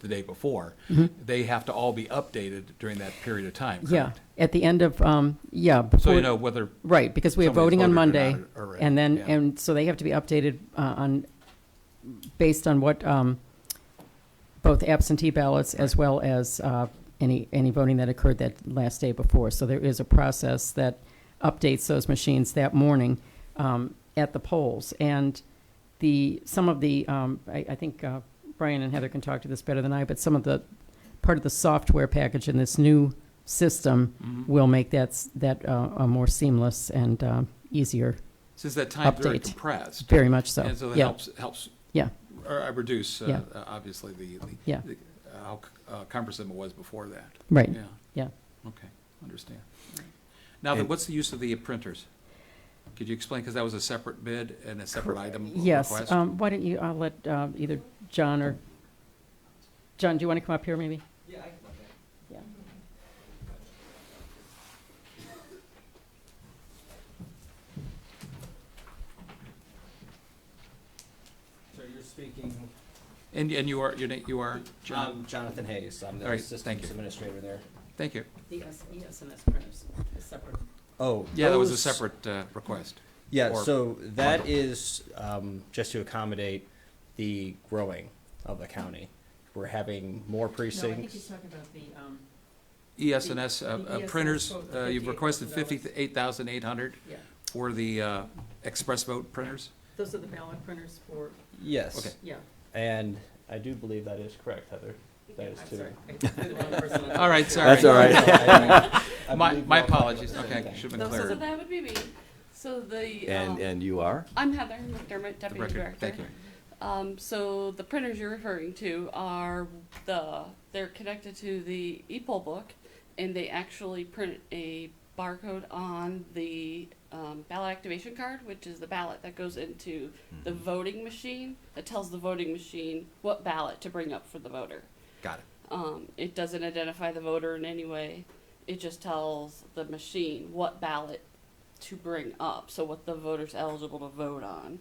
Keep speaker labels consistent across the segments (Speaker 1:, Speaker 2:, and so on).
Speaker 1: the day before, they have to all be updated during that period of time,
Speaker 2: Mm-hmm. Yeah,
Speaker 1: correct?
Speaker 2: at the end of, um,
Speaker 1: So
Speaker 2: yeah.
Speaker 1: you
Speaker 2: before-
Speaker 1: know whether,
Speaker 2: Right, because we have
Speaker 1: somebody's
Speaker 2: voting
Speaker 1: voted
Speaker 2: on
Speaker 1: or
Speaker 2: Monday.
Speaker 1: not already,
Speaker 2: And then,
Speaker 1: yeah.
Speaker 2: and so they have to be updated uh, on, based on what, um, both absentee ballots as well as uh, any, any voting that occurred that last day before. So there is a process that updates those machines that morning um, at the polls. And the, some of the, um, I I think uh, Brian and Heather can talk to this better than I, but some of the, part of the software package in this new system
Speaker 1: Mm-hmm.
Speaker 2: will make that, s- that uh, a more seamless and um, easier,
Speaker 1: since that time's very
Speaker 2: Update.
Speaker 1: compressed.
Speaker 2: very much so.
Speaker 1: And so that
Speaker 2: Yeah.
Speaker 1: helps, helps,
Speaker 2: Yeah,
Speaker 1: or uh, reduce,
Speaker 2: Yeah.
Speaker 1: uh, uh, obviously, the, the-
Speaker 2: Yeah.
Speaker 1: the- how c- uh, cumbersome it was before that.
Speaker 2: right,
Speaker 1: Yeah,
Speaker 2: yeah.
Speaker 1: okay, understand. Now, then,
Speaker 3: And-
Speaker 1: what's the use of the printers? Could you explain, because that was a separate bid and a separate item
Speaker 2: Yes,
Speaker 1: request?
Speaker 2: um, why don't you, I'll let uh, either John or, John, do you want to come up here maybe? Yeah, I can come
Speaker 4: So you're speaking,
Speaker 1: And, and you are, your name, you are,
Speaker 4: I'm
Speaker 1: John?
Speaker 4: Jonathan Hayes, I'm
Speaker 1: All
Speaker 4: the
Speaker 1: right, thank
Speaker 4: Assistant
Speaker 1: you.
Speaker 4: Administrator there.
Speaker 1: Thank you.
Speaker 2: The ESNS printers, separate.
Speaker 4: Oh.
Speaker 1: Yeah, that was a
Speaker 4: those-
Speaker 1: separate uh, request.
Speaker 4: Yeah,
Speaker 1: or
Speaker 4: so that is um, just to accommodate the growing of the county. We're having more
Speaker 2: No, I think he's
Speaker 4: precincts.
Speaker 2: talking about the, um,
Speaker 1: ESNS,
Speaker 2: The- the
Speaker 1: uh, uh,
Speaker 2: ESNS
Speaker 1: printers,
Speaker 2: quote was
Speaker 1: uh, you've requested
Speaker 2: $58,000.
Speaker 1: fifty-eight thousand eight hundred
Speaker 2: yeah,
Speaker 1: for the uh, express vote printers?
Speaker 2: those are the ballot printers for,
Speaker 4: Yes,
Speaker 1: Okay.
Speaker 2: yeah.
Speaker 4: and I do believe that is correct, Heather. That is
Speaker 2: I'm
Speaker 4: too.
Speaker 2: sorry. I threw the wrong person on.
Speaker 1: All right, sorry.
Speaker 3: That's all right.
Speaker 4: I
Speaker 1: My,
Speaker 4: believe
Speaker 1: my
Speaker 4: we're all talking
Speaker 1: apologies,
Speaker 4: about the
Speaker 1: okay,
Speaker 4: same
Speaker 1: should have
Speaker 5: No,
Speaker 1: been
Speaker 5: So
Speaker 1: clear.
Speaker 5: that would be me. So the,
Speaker 3: And,
Speaker 5: um,
Speaker 3: and you are?
Speaker 5: I'm Heather McDermott,
Speaker 1: The
Speaker 5: Deputy
Speaker 1: record,
Speaker 5: Director.
Speaker 1: thank you.
Speaker 5: Um, so the printers you're referring to are the, they're connected to the e-poll book, and they actually print a barcode on the um, ballot activation card, which is the ballot that goes into
Speaker 1: Mm-hmm.
Speaker 5: the voting machine, that tells the voting machine what ballot to bring up for the voter.
Speaker 1: Got it.
Speaker 5: Um, it doesn't identify the voter in any way. It just tells the machine what ballot to bring up, so what the voter's eligible to vote on.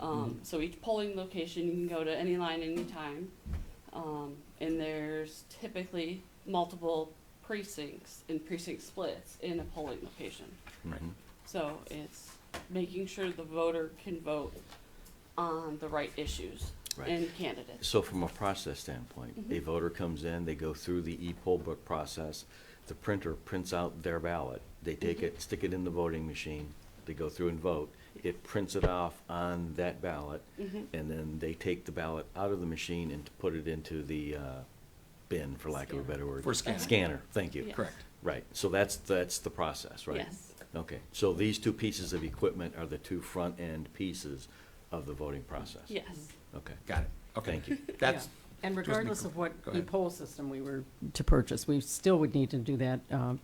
Speaker 5: Um, so each polling location, you can go to any line anytime. Um, and there's typically multiple precincts and precinct splits in a polling location. So it's making sure the voter can vote on the right issues
Speaker 3: Right.
Speaker 5: and candidates.
Speaker 3: So from a process
Speaker 5: Mm-hmm.
Speaker 3: standpoint, a voter comes in, they go through the e-poll book process, the printer prints out their ballot, they take
Speaker 5: Mm-hmm.
Speaker 3: it, stick it in the voting machine, they go through and vote, it prints it off on that ballot,
Speaker 5: Mm-hmm.
Speaker 3: and then they take the ballot out of the machine and put it into the uh, bin, for lack of a
Speaker 5: Scanner.
Speaker 3: better word.
Speaker 1: For scanner.
Speaker 3: Scanner, thank you.
Speaker 5: Yeah.
Speaker 1: Correct.
Speaker 3: Right, so that's, that's the process, right?
Speaker 5: Yes.
Speaker 3: Okay, so these two pieces of equipment are the two front-end pieces of the voting process?
Speaker 5: Yes.
Speaker 3: Okay.
Speaker 1: Got it. Okay.
Speaker 3: Thank you.
Speaker 1: That's,
Speaker 2: Yeah. And
Speaker 1: just me
Speaker 2: regardless
Speaker 1: cl-
Speaker 2: of what
Speaker 1: go ahead.
Speaker 2: e-poll system we were to purchase, we still would need to do that um,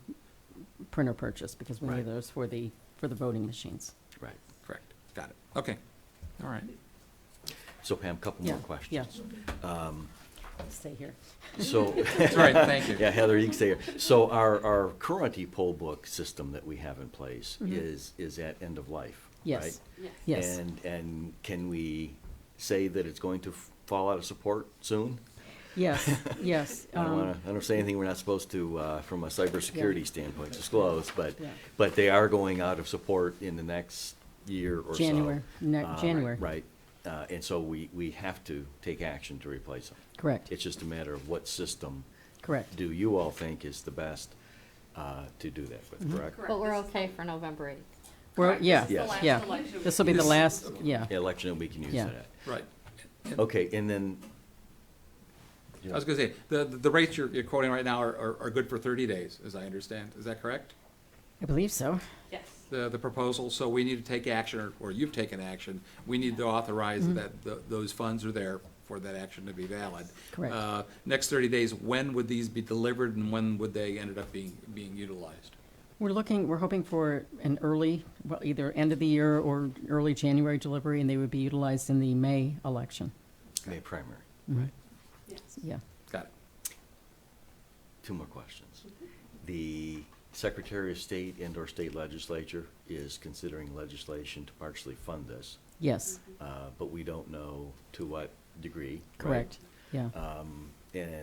Speaker 2: printer purchase because we need
Speaker 3: Right.
Speaker 2: those for the, for the voting machines.
Speaker 3: Right.
Speaker 1: correct. Got it. Okay. All right.
Speaker 3: So Pam, couple more
Speaker 2: Yeah,
Speaker 3: questions.
Speaker 2: Yeah. Stay here.
Speaker 3: So,
Speaker 1: That's all right, thank you.
Speaker 3: yeah, Heather, you can stay here. So our, our current e-poll book system that we have in place is, is at end of life,
Speaker 2: Mm-hmm. Yes.
Speaker 3: right?
Speaker 5: Yes.
Speaker 2: Yes.
Speaker 3: And, and can we say that it's going to f- fall out of support soon?
Speaker 2: Yes, yes.
Speaker 3: I don't
Speaker 2: um,
Speaker 3: want to, I don't say anything we're not supposed to, uh, from a cybersecurity standpoint, disclose, but,
Speaker 2: Yeah.
Speaker 3: but they are going out of support in the next year or so.
Speaker 2: January, ne-
Speaker 3: Uh,
Speaker 2: January.
Speaker 3: Right, Uh, and so we, we have to take action to replace them.
Speaker 2: Correct,
Speaker 3: It's just a matter of what system
Speaker 2: correct.
Speaker 3: do you all think is the best uh, to do that
Speaker 2: Mm-hmm.
Speaker 3: with, correct?
Speaker 5: Correct.
Speaker 6: But we're
Speaker 5: This is the-
Speaker 6: okay for November 8th.
Speaker 2: We're,
Speaker 5: Correct.
Speaker 2: yeah,
Speaker 5: This is
Speaker 3: Yes.
Speaker 5: the last
Speaker 2: yeah.
Speaker 5: election.
Speaker 2: This will be the
Speaker 1: This-
Speaker 2: last, yeah.
Speaker 3: Election, we can use
Speaker 2: Yeah.
Speaker 3: that.
Speaker 1: Right.
Speaker 3: Okay, and then,
Speaker 1: I was gonna say, the, the rates you're, you're quoting right now are, are, are good for thirty days, as I understand. Is that correct?
Speaker 2: I believe so.
Speaker 5: Yes.
Speaker 1: The, the proposal, so we need to take action, or, or you've taken action. We need to authorize that th- those funds are there for that action to be valid.
Speaker 2: Correct.
Speaker 1: Uh, Next thirty days, when would these be delivered and when would they ended up being, being utilized?
Speaker 2: We're looking, we're hoping for an early, well, either end of the year or early January delivery, and they would be utilized in the May election. Mm-hmm.
Speaker 3: May primary,
Speaker 5: Yes.
Speaker 2: Yeah.
Speaker 1: Got it.
Speaker 3: two more questions. The Secretary of State and/or state legislature is considering legislation to partially fund this,
Speaker 2: Yes,
Speaker 3: uh, but we don't know to what degree. right?
Speaker 2: correct. Yeah.
Speaker 3: and